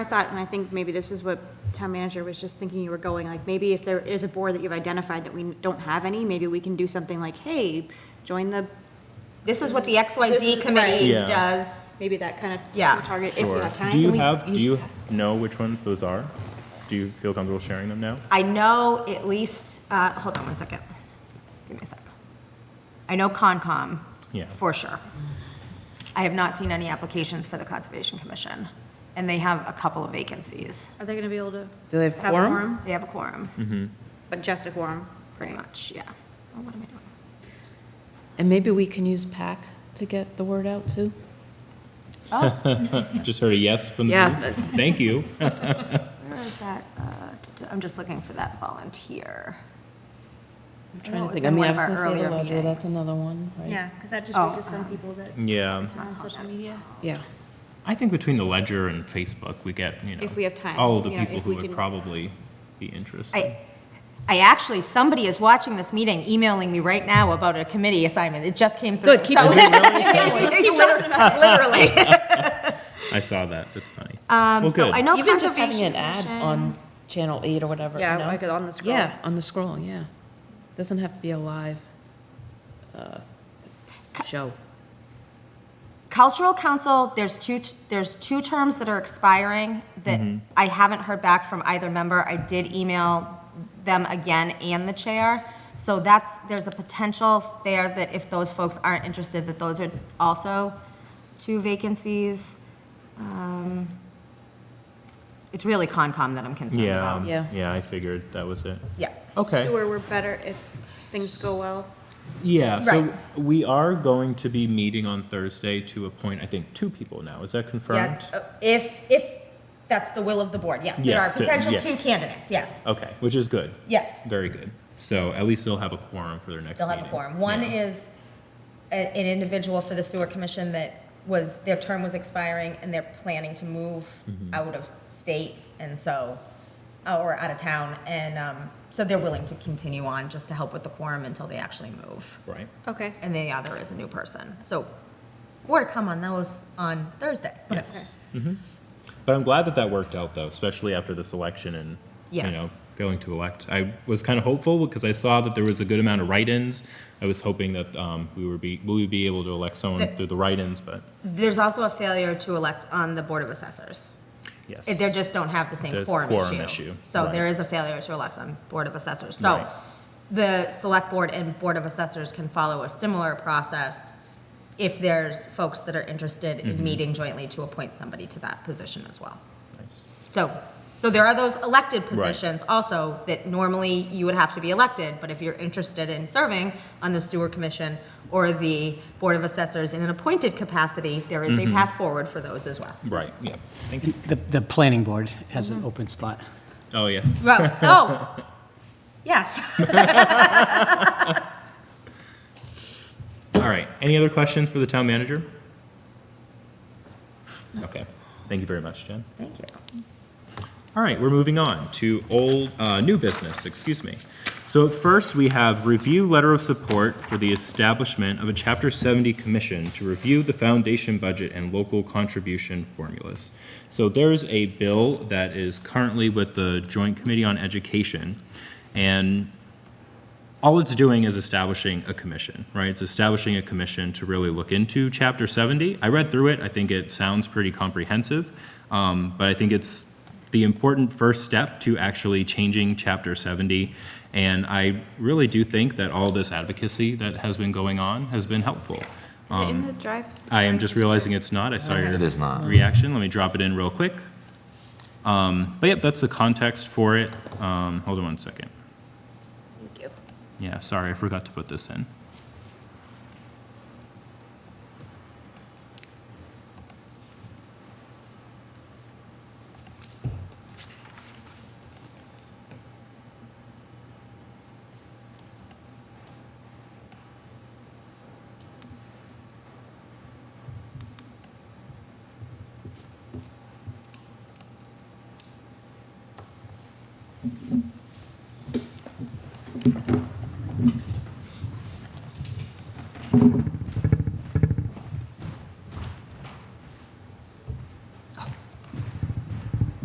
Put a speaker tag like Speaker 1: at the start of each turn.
Speaker 1: I thought, and I think maybe this is what town manager was just thinking you were going, like, maybe if there is a board that you've identified that we don't have any, maybe we can do something like, hey, join the,
Speaker 2: This is what the XYZ committee
Speaker 3: Yeah.
Speaker 2: does.
Speaker 1: maybe that kind of
Speaker 2: Yeah.
Speaker 1: target if you
Speaker 3: Sure.
Speaker 1: have time.
Speaker 3: Do you
Speaker 1: We-
Speaker 3: have, do you know which ones those are? Do you feel comfortable sharing them now?
Speaker 2: I know at least, uh, hold on one second. Give me a sec. I know Concom.
Speaker 3: Yeah.
Speaker 2: For sure. I have not seen any applications for the Conservation Commission, and they have a couple of vacancies.
Speaker 1: Are they gonna be able to?
Speaker 4: Do they have
Speaker 1: a
Speaker 4: quorum?
Speaker 2: They have a quorum,
Speaker 1: But just a quorum,
Speaker 2: pretty much, yeah. Oh, what am I doing?
Speaker 4: And maybe we can use PAC to get the word out too?
Speaker 3: Just heard a yes from the
Speaker 4: Yeah,
Speaker 3: group.
Speaker 4: that's-
Speaker 3: Thank you.
Speaker 2: Where is that? Uh, duh, duh, I'm just looking for that volunteer.
Speaker 4: I'm
Speaker 2: I know
Speaker 4: trying
Speaker 2: it
Speaker 4: to
Speaker 2: was
Speaker 4: think, I
Speaker 2: in
Speaker 4: mean,
Speaker 2: one
Speaker 4: I
Speaker 2: of
Speaker 4: was
Speaker 2: our
Speaker 4: gonna say the
Speaker 2: earlier
Speaker 4: ledger,
Speaker 2: meetings.
Speaker 4: that's another one, right?
Speaker 5: Yeah, because that just
Speaker 2: Oh,
Speaker 5: reaches some people that
Speaker 3: Yeah.
Speaker 5: are on social media.
Speaker 4: Yeah.
Speaker 3: I think between the ledger and Facebook, we get, you know.
Speaker 1: If we have time,
Speaker 3: All of the
Speaker 1: you know,
Speaker 3: people
Speaker 1: if
Speaker 3: who
Speaker 1: we
Speaker 3: would
Speaker 1: can-
Speaker 3: probably be interested.
Speaker 2: I, I actually, somebody is watching this meeting, emailing me right now about a committee assignment. It just came through.
Speaker 4: Good, keep
Speaker 2: So-
Speaker 4: it
Speaker 2: Literally.
Speaker 3: I saw that, that's funny.
Speaker 2: Um,
Speaker 3: Well,
Speaker 2: So
Speaker 3: good.
Speaker 2: I know
Speaker 4: Even just having
Speaker 2: Conservation
Speaker 4: an ad on
Speaker 2: Commission.
Speaker 4: Channel 8 or whatever,
Speaker 1: Yeah,
Speaker 4: you know?
Speaker 1: like on the scroll.
Speaker 4: Yeah, on the scroll, yeah. Doesn't have to be a live uh, show.
Speaker 2: Cultural Council, there's two, t- there's two terms that are expiring that
Speaker 3: Mm-hmm.
Speaker 2: I haven't heard back from either member. I did email them again and the chair. So that's, there's a potential there that if those folks aren't interested, that those are also two vacancies. Um, It's really Concom that I'm concerned about.
Speaker 3: Yeah,
Speaker 4: Yeah.
Speaker 3: yeah, I figured that was it.
Speaker 2: Yeah.
Speaker 3: Okay.
Speaker 1: Sewer, we're better if things go well.
Speaker 3: Yeah, so
Speaker 2: Right.
Speaker 3: we are going to be meeting on Thursday to appoint, I think, two people now. Is that
Speaker 2: Yeah,
Speaker 3: confirmed?
Speaker 2: uh, If, if that's the will of the board, yes. There are
Speaker 3: Yes, to-
Speaker 2: potential
Speaker 3: yes.
Speaker 2: two candidates, yes,
Speaker 3: Okay, which is good.
Speaker 2: yes.
Speaker 3: Very good. So at least they'll have a quorum for their next
Speaker 2: They'll
Speaker 3: meeting.
Speaker 2: have a quorum. One
Speaker 3: Yeah.
Speaker 2: is a- an individual for the sewer commission that was, their term was expiring and they're planning to move
Speaker 3: Mm-hmm.
Speaker 2: out of state and so, or out of town. And um, so they're willing to continue on just to help with the quorum until they actually move.
Speaker 3: Right.
Speaker 1: Okay.
Speaker 2: And the other is a new person. So more to come on those on Thursday.
Speaker 3: Yes. Mm-hmm. But I'm glad that that worked out, though, especially after this election and, you
Speaker 2: Yes.
Speaker 3: know, failing to elect. I was kind of hopeful because I saw that there was a good amount of write-ins. I was hoping that um, we would be, we would be able to elect someone
Speaker 2: The-
Speaker 3: through the write-ins, but
Speaker 2: There's also a failure to elect on the Board of Assessors.
Speaker 3: yes.
Speaker 2: They just don't have the same
Speaker 3: There's
Speaker 2: quorum
Speaker 3: quorum
Speaker 2: issue.
Speaker 3: issue,
Speaker 2: So there
Speaker 3: right.
Speaker 2: is a failure to elect on Board of Assessors. So
Speaker 3: Right.
Speaker 2: the Select Board and Board of Assessors can follow a similar process if there's folks that are interested
Speaker 3: Mm-hmm.
Speaker 2: in meeting jointly to appoint somebody to that position as well.
Speaker 3: Nice.
Speaker 2: So, so there are those elected
Speaker 3: Right.
Speaker 2: positions also that normally you would have to be elected, but if you're interested in serving on the sewer commission or the Board of Assessors in an appointed capacity, there is a
Speaker 3: Mm-hmm.
Speaker 2: path forward for those as well.
Speaker 3: Right, yeah. Thank you.
Speaker 6: The, the planning board has an open spot.
Speaker 3: Oh, yes.
Speaker 2: Well, oh, yes.
Speaker 3: All right. Any other questions for the town manager? Okay. Thank you very much, Jen.
Speaker 2: Thank you.
Speaker 3: All right, we're moving on to old, uh, new business, excuse me. So at first, we have review letter of support for the establishment of a Chapter 70 commission to review the foundation budget and local contribution formulas. So there's a bill that is currently with the Joint Committee on Education, and all it's doing is establishing a commission, right? It's establishing a commission to really look into Chapter 70. I read through it, I think it sounds pretty comprehensive, um, but I think it's the important first step to actually changing Chapter 70. And I really do think that all this advocacy that has been going on has been helpful.
Speaker 5: Is
Speaker 3: Um,
Speaker 5: it in the drive?
Speaker 3: I am just realizing it's not. I saw your
Speaker 7: It is not.
Speaker 3: reaction. Let me drop it in real quick. Um, but yep, that's the context for it. Um, hold on one second.
Speaker 5: Thank you.
Speaker 3: Yeah, sorry, I forgot to put this in.